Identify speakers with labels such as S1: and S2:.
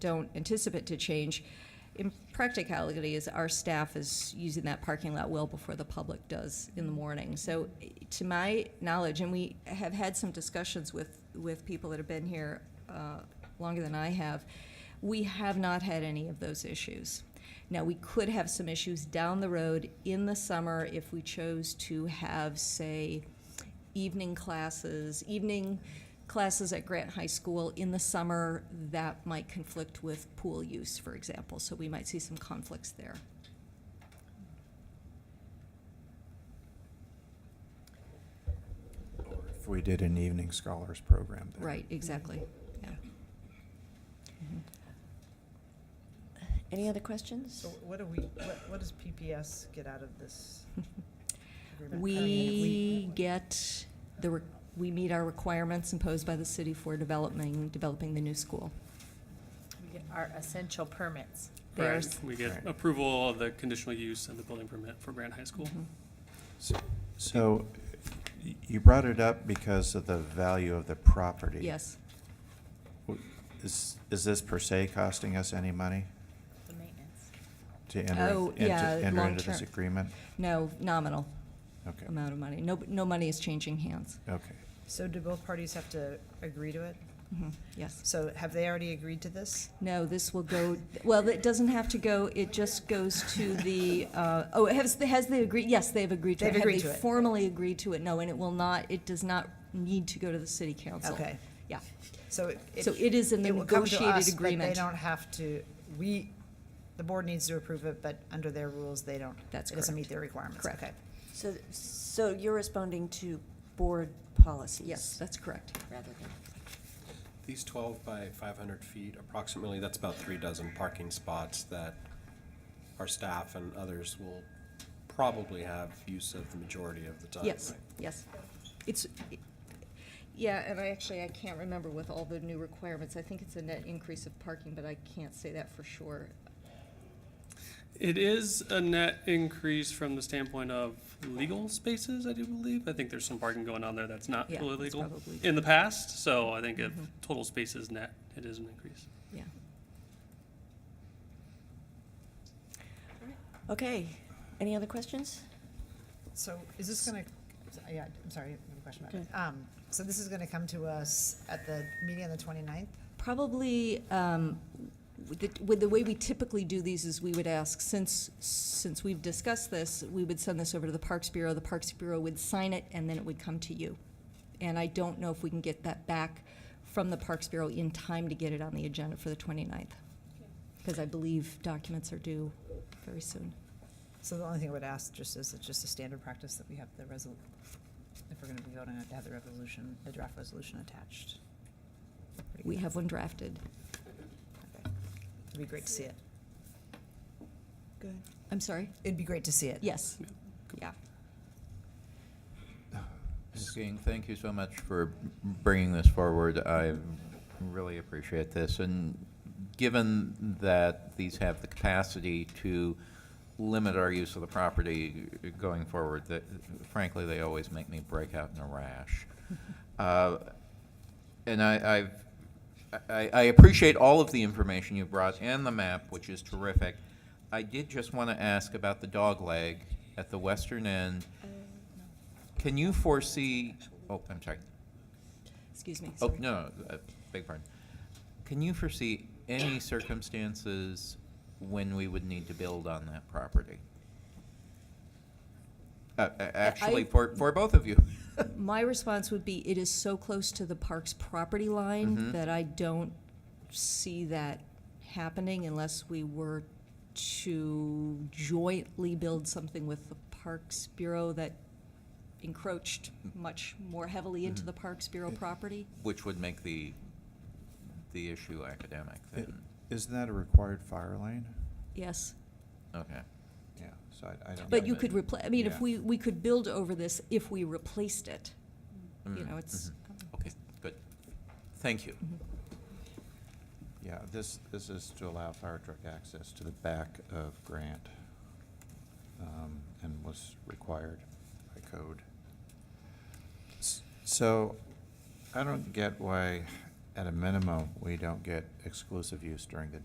S1: don't anticipate to change. In practicality, is our staff is using that parking lot well before the public does in the morning. So, eh, to my knowledge, and we have had some discussions with with people that have been here uh, longer than I have, we have not had any of those issues. Now, we could have some issues down the road in the summer if we chose to have, say, evening classes, evening classes at Grant High School in the summer, that might conflict with pool use, for example, so we might see some conflicts there.
S2: Or if we did an evening scholars program there.
S1: Right, exactly, yeah.
S3: Any other questions?
S4: So what do we, what, what does PPS get out of this? agreement? I
S1: We
S4: mean,
S1: get the, re- we meet our requirements imposed by the city for developing, developing the new school.
S5: We get our essential permits.
S1: There's-
S6: Correct. We get
S2: Right.
S6: approval of the conditional use and the building permit for Grant High School.
S1: mm-hmm.
S2: So- So y- you brought it up because of the value of the property.
S1: Yes,
S2: W- Is, is this per se costing us any money
S5: The maintenance.
S2: to enter, in-
S1: Oh,
S2: and to
S1: yeah,
S2: enter into this
S1: long-term.
S2: agreement?
S1: no, nominal
S2: Okay,
S1: amount of money, no, no money is changing hands,
S2: okay.
S4: So do both parties have to agree to it?
S1: Mhm, yes.
S4: So have they already agreed to this?
S1: No, this will go, well, it doesn't have to go, it just goes to the, uh, oh, it has, has they agreed, yes, they've agreed to it.
S4: They've
S1: Have
S4: agreed
S1: they
S4: to it.
S1: formally agreed to it? No, and it will not, it does not need to go to the city council.
S4: Okay,
S1: Yeah,
S4: so it.
S1: So it is in the
S4: will come to
S1: negotiated
S4: us, but
S1: agreement.
S4: They don't have to, we, the board needs to approve it, but under their rules, they don't.
S1: That's
S4: It doesn't
S1: correct.
S4: meet their requirements,
S1: Correct.
S4: okay.
S3: So, so you're responding to board policies?
S1: yes, that's correct.
S3: Rather than,
S7: These twelve by five hundred feet approximately, that's about three dozen parking spots that our staff and others will probably have use of the majority of the time.
S1: Yes,
S7: right?
S1: yes. It's, yeah, and I actually, I can't remember with all the new requirements. I think it's a net increase of parking, but I can't say that for sure.
S6: It is a net increase from the standpoint of legal spaces, I do believe. I think there's some parking going on there that's not
S1: Yeah,
S6: fully
S1: it's
S6: legal
S1: probably- Mm-hmm.
S6: in the past, so I think if total space is net, it is an increase.
S1: Yeah.
S3: okay. Any other questions?
S4: So is this gonna, yeah, I'm sorry, I have a question about it. Um, so this is gonna come to us at the meeting on the twenty-ninth?
S1: Probably, um, with the, with the way we typically do these is we would ask, since, since we've discussed this, we would send this over to the Parks Bureau, the Parks Bureau would sign it, and then it would come to you. And I don't know if we can get that back from the Parks Bureau in time to get it on the agenda for the 29th. Because I believe documents are due very soon.
S4: So the only thing I would ask just is, it's just a standard practice that we have the resol, if we're gonna be voting, on it, to have the resolution, the draft resolution attached. Pretty
S1: We
S4: good.
S1: have one drafted.
S4: Okay. It'd be great to see it.
S3: Good.
S1: I'm sorry?
S4: It'd be great to see it.
S1: Yes. Yeah.
S8: Ms. Ging, thank you so much for bringing this forward. I really appreciate this. And given that these have the capacity to limit our use of the property going forward, that frankly, they always make me break out in a rash. Uh, And I, I've, I, I appreciate all of the information you brought and the map, which is terrific. I did just want to ask about the dog leg at the western end.
S1: Uh,
S8: Can you foresee, oh, I'm sorry.
S1: Excuse me.
S8: Oh,
S1: sorry.
S8: no, uh, beg pardon. Can you foresee any circumstances when we would need to build on that property? Uh, uh, Actually,
S1: I-
S8: for, for both of you.
S1: My response would be, it is so close to the park's property line
S2: Mm-hmm.
S8: Mhm.
S1: that I don't see that happening unless we were to jointly build something with the Parks Bureau that encroached much more heavily
S2: Mm-hmm.
S1: into the Parks Bureau property.
S8: Which would make the, the issue academic
S2: I-
S8: then.
S2: Isn't that a required fire lane?
S1: Yes.
S8: Okay.
S2: Yeah, so I, I don't.
S1: But
S2: know
S1: you
S2: that-
S1: could replace, I mean, if
S2: Yeah.
S1: we, we could build over this if we replaced it. You
S8: Mm,
S1: know, it's, Mm-hmm.
S8: mhm. Okay, good. Thank you.
S2: Yeah, this, this is to allow fire truck access to the back of Grant, um, and was required by code. S- So, I don't get why at a minimum, we don't get exclusive use during the